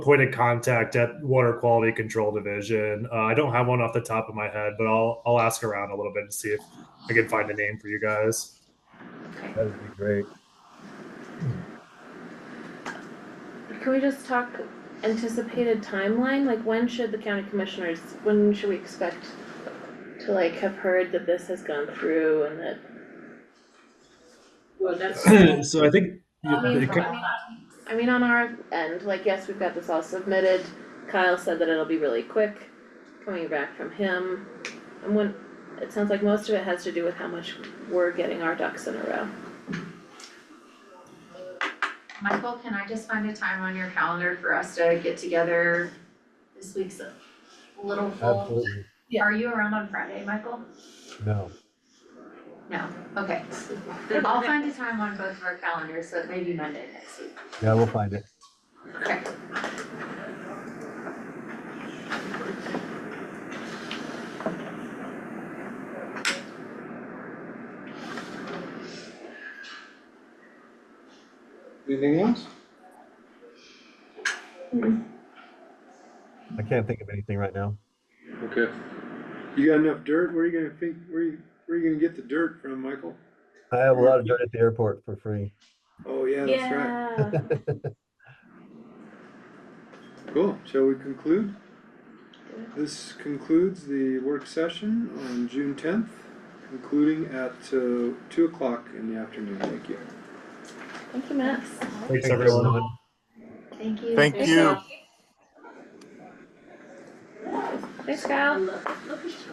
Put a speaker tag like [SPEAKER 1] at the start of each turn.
[SPEAKER 1] point of contact at Water Quality Control Division. Uh, I don't have one off the top of my head, but I'll I'll ask around a little bit and see if I can find a name for you guys.
[SPEAKER 2] That would be great.
[SPEAKER 3] Can we just talk anticipated timeline? Like when should the county commissioners, when should we expect to like have heard that this has gone through and that,
[SPEAKER 4] Well, that's,
[SPEAKER 1] so I think
[SPEAKER 3] I mean,
[SPEAKER 1] it could-
[SPEAKER 3] I mean, I mean, on our end, like, yes, we've got this all submitted. Kyle said that it'll be really quick coming back from him. And when, it sounds like most of it has to do with how much we're getting our ducks in a row.
[SPEAKER 5] Michael, can I just find a time on your calendar for us to get together? This week's a little full.
[SPEAKER 2] Absolutely.
[SPEAKER 5] Are you around on Friday, Michael?
[SPEAKER 2] No.
[SPEAKER 5] No, okay. I'll find a time on both of our calendars, so it may be Monday next week.
[SPEAKER 2] Yeah, we'll find it.
[SPEAKER 5] Okay.
[SPEAKER 6] Anything else?
[SPEAKER 2] I can't think of anything right now.
[SPEAKER 6] Okay. You got enough dirt? Where are you gonna think, where you, where you gonna get the dirt from, Michael?
[SPEAKER 2] I have a lot of dirt at the airport for free.
[SPEAKER 6] Oh, yeah, that's right.
[SPEAKER 3] Yeah.
[SPEAKER 6] Cool. Shall we conclude? This concludes the work session on June tenth, concluding at, uh, two o'clock in the afternoon. Thank you.
[SPEAKER 3] Thank you, Max.
[SPEAKER 1] thanks
[SPEAKER 2] Thanks,
[SPEAKER 1] everyone.
[SPEAKER 2] everyone.
[SPEAKER 5] Thank you.
[SPEAKER 7] Thank you.
[SPEAKER 3] Thanks, Kyle.
[SPEAKER 4] look, look at